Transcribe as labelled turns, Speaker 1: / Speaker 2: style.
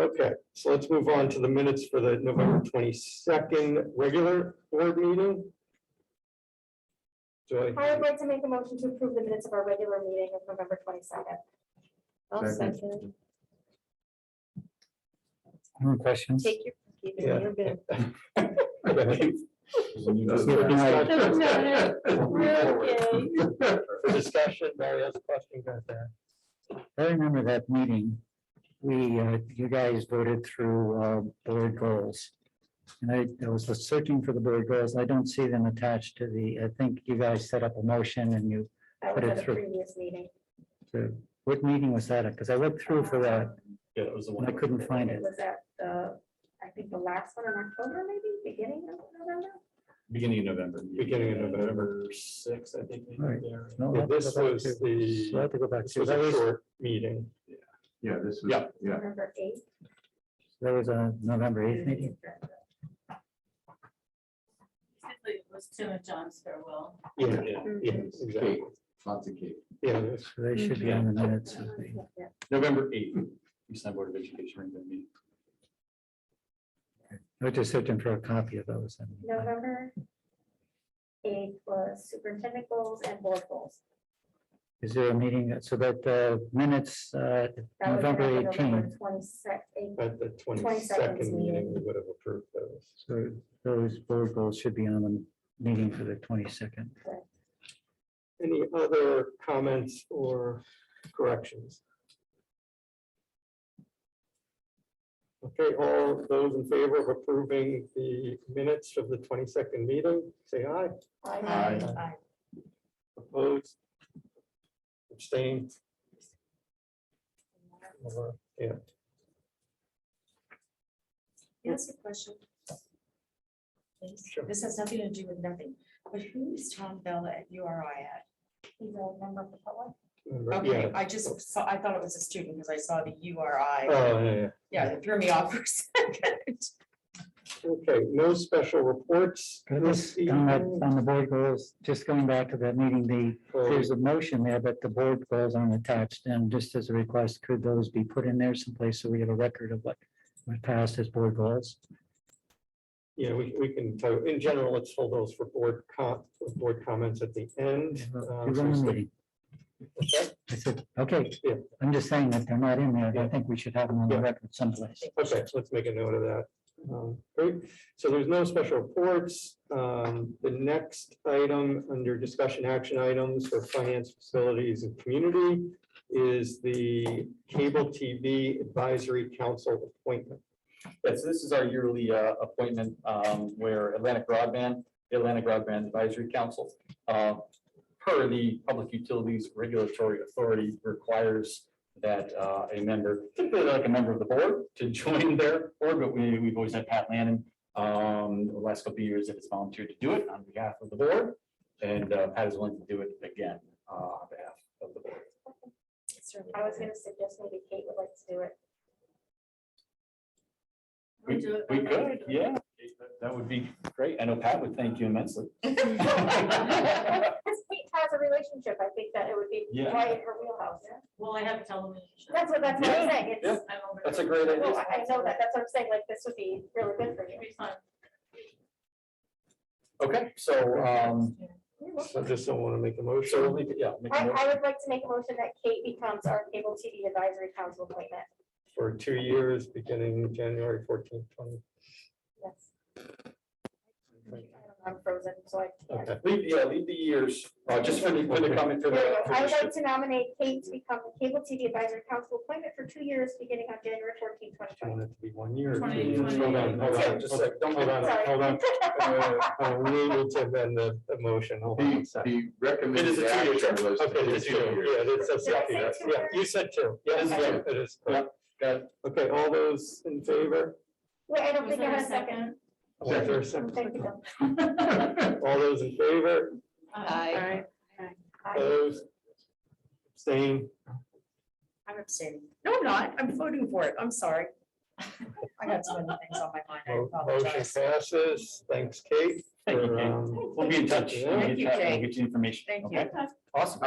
Speaker 1: Okay, so let's move on to the minutes for the November twenty-second regular board meeting. Joy,
Speaker 2: I would like to make a motion to approve the minutes of our regular meeting of November twenty-second.
Speaker 3: I'll
Speaker 4: Second.
Speaker 3: second.
Speaker 4: Any questions?
Speaker 3: Take your. keep it in your bin.
Speaker 1: There's no discussion.
Speaker 3: No, Okay.
Speaker 1: For discussion, Mary has a question about that.
Speaker 4: I remember that meeting. We, uh, you guys voted through uh, board goals. And I- I was searching for the board goals. I don't see them attached to the, I think you guys set up a motion and you,
Speaker 2: That
Speaker 4: Put
Speaker 2: was
Speaker 4: it
Speaker 2: at a
Speaker 4: through.
Speaker 2: previous meeting.
Speaker 4: what meeting was that? Because I looked through for that
Speaker 5: Yeah, it was the
Speaker 4: and I
Speaker 5: one.
Speaker 4: couldn't find it.
Speaker 2: was at, the, I think, the last one in October, maybe, beginning of November?
Speaker 5: Beginning of November.
Speaker 1: Beginning of November.
Speaker 5: Six, I think. maybe
Speaker 4: Right.
Speaker 5: there.
Speaker 4: No, I'll
Speaker 1: Yeah,
Speaker 4: have to
Speaker 1: This
Speaker 4: go back
Speaker 1: was
Speaker 4: to- I'll
Speaker 1: the,
Speaker 4: have to go back
Speaker 1: this
Speaker 4: to,
Speaker 1: was
Speaker 4: that
Speaker 1: a
Speaker 4: was,
Speaker 1: short meeting.
Speaker 4: yeah, this was,
Speaker 5: Yeah.
Speaker 4: Yeah.
Speaker 2: November eighth.
Speaker 4: that was a November eighth meeting.
Speaker 6: Basically, it was Tim and John's farewell.
Speaker 1: Yeah,
Speaker 5: Yeah.
Speaker 1: yeah, exactly.
Speaker 7: Lots of cake.
Speaker 1: Yeah, this-
Speaker 4: So They should be on the minutes. of the-
Speaker 2: Yeah.
Speaker 5: November eighth, East Side Board of Education. regular meeting.
Speaker 4: I was just searching for a copy of those. and-
Speaker 2: November eighth was superintendent goals and board goals.
Speaker 4: Is there a meeting? So that the minutes, uh,
Speaker 2: That was after
Speaker 4: November
Speaker 2: November
Speaker 4: 18th.
Speaker 2: Twenty-second,
Speaker 1: at the
Speaker 2: 22nd is
Speaker 1: twenty-second meeting, we would have approved those.
Speaker 4: So those board goals should be on the meeting for the twenty-second.
Speaker 1: Any other comments or corrections? Okay, all those in favor of approving the minutes of the twenty-second meeting, say aye.
Speaker 3: Aye.
Speaker 1: Opposed? Abstained? Or, Yeah,
Speaker 3: Yes, a question. Please.
Speaker 1: Sure.
Speaker 3: This has nothing to do with nothing, but who is Tom Bella at URI at?
Speaker 2: he's a member of the public.
Speaker 1: remember,
Speaker 3: Okay,
Speaker 1: yeah.
Speaker 3: I just saw, I thought it was a student because I saw the URI.
Speaker 1: Oh, yeah, yeah.
Speaker 3: Yeah, it threw me off for a second.
Speaker 1: Okay, no special reports.
Speaker 4: On
Speaker 1: this
Speaker 4: that-
Speaker 1: evening.
Speaker 4: on the board goals, just going back to that meeting, the,
Speaker 1: Oh,
Speaker 4: there's a motion there, but the board goals aren't attached. And just as a request, could those be put in there someplace so we have a record of what was passed as board goals?
Speaker 1: Yeah, we, we can, vote. in general, let's hold those for board com, board comments at the end.
Speaker 4: You
Speaker 1: um,
Speaker 4: run the meeting.
Speaker 1: Okay.
Speaker 4: I said, okay,
Speaker 1: Yeah.
Speaker 4: I'm just saying that they're not in there. I
Speaker 1: Yeah.
Speaker 4: think we should have them on the
Speaker 1: Yeah.
Speaker 4: record someplace.
Speaker 1: Okay, so let's make a note of that. Um, Great, so there's no special reports. Um, The next item under discussion action items for finance facilities and community is the Cable TV Advisory Council appointment.
Speaker 5: Yeah, so this is our yearly uh, appointment um, where Atlantic Broadband, the Atlantic Broadband Advisory Council, uh, per the Public Utilities Regulatory Authority requires that uh, a member, typically like a member of the board, to join their board, but we, we've always had Pat Lannon. um, The last couple of years that has volunteered to do it on behalf of the board, and uh, Pat is willing to do it again uh, on behalf of the board.
Speaker 2: I was gonna suggest maybe Kate would like to do it.
Speaker 6: We'll do it.
Speaker 5: We could, yeah, that would be great. I know Pat would thank you immensely.
Speaker 2: Because Kate has a relationship, I think that it would be
Speaker 5: Yeah.
Speaker 2: right in her wheelhouse.
Speaker 6: Well, I have television.
Speaker 2: That's what, that's what I'm
Speaker 5: Yeah,
Speaker 2: saying.
Speaker 5: yeah.
Speaker 2: It's,
Speaker 6: I'm over
Speaker 5: That's a
Speaker 6: there.
Speaker 5: great
Speaker 2: well,
Speaker 5: idea.
Speaker 2: I I know that, that's what I'm saying, like, this would be really good for you.
Speaker 6: It'd be fun.
Speaker 5: Okay, so, um,
Speaker 1: So just don't want to make a motion.
Speaker 5: so we'll make it- yeah. make a
Speaker 2: I, I
Speaker 5: motion
Speaker 2: would like to make a motion that Kate becomes our cable TV advisory council appointment.
Speaker 1: For two years, beginning January fourteenth, twenty.
Speaker 2: Yes. I'm frozen, so I can't.
Speaker 1: Okay,
Speaker 5: Leave, yeah, leave the years, uh, just for the, for the comment for
Speaker 2: There
Speaker 5: the.
Speaker 2: we go.
Speaker 5: for the-
Speaker 2: I would like to nominate Kate to become the cable TV advisory council appointment for two years, beginning on January 14,
Speaker 1: do you
Speaker 2: 2020.
Speaker 1: want it to be one year? or two
Speaker 6: Twenty,
Speaker 1: years?
Speaker 6: twenty.
Speaker 1: Hold on, hold on, just a sec. Don't hold on,
Speaker 2: Sorry.
Speaker 1: hold on. Uh, uh, We need to amend the the motion. Hold on a
Speaker 7: The,
Speaker 1: second.
Speaker 7: the
Speaker 5: It is a
Speaker 7: recommended
Speaker 5: two-year term.
Speaker 7: action was. to
Speaker 1: Okay,
Speaker 7: do
Speaker 1: that's
Speaker 7: two
Speaker 1: you.
Speaker 7: years.
Speaker 1: Yeah, that's, that's,
Speaker 2: Did I
Speaker 1: yeah,
Speaker 2: say two
Speaker 1: yeah,
Speaker 2: or-
Speaker 1: you said two. Yeah,
Speaker 5: It is
Speaker 1: yeah,
Speaker 5: two.
Speaker 1: it is.
Speaker 5: Yeah. Got it.
Speaker 1: Okay, all those in favor?
Speaker 2: Wait, I don't
Speaker 6: Was
Speaker 2: think I
Speaker 6: there
Speaker 2: had
Speaker 6: a
Speaker 2: a second.
Speaker 6: second?
Speaker 1: Was there a
Speaker 2: Thank you.
Speaker 1: second?
Speaker 2: Bill.
Speaker 1: All those in favor,
Speaker 3: Aye.
Speaker 6: Aye.
Speaker 2: Aye.
Speaker 1: opposed? Staying,
Speaker 3: I'm abstaining. No, I'm not. I'm voting for it. I'm sorry. I got so many things on my mind. I
Speaker 1: motion
Speaker 3: apologize.
Speaker 1: passes. Thanks, Kate.
Speaker 5: Thank you,
Speaker 1: for,
Speaker 5: Kate.
Speaker 1: um,
Speaker 5: We'll be in touch. We'll be
Speaker 3: Thank
Speaker 5: in
Speaker 3: you,
Speaker 5: touch. We'll
Speaker 3: Jay.
Speaker 5: get you information.
Speaker 3: Thank you.
Speaker 5: okay? Awesome.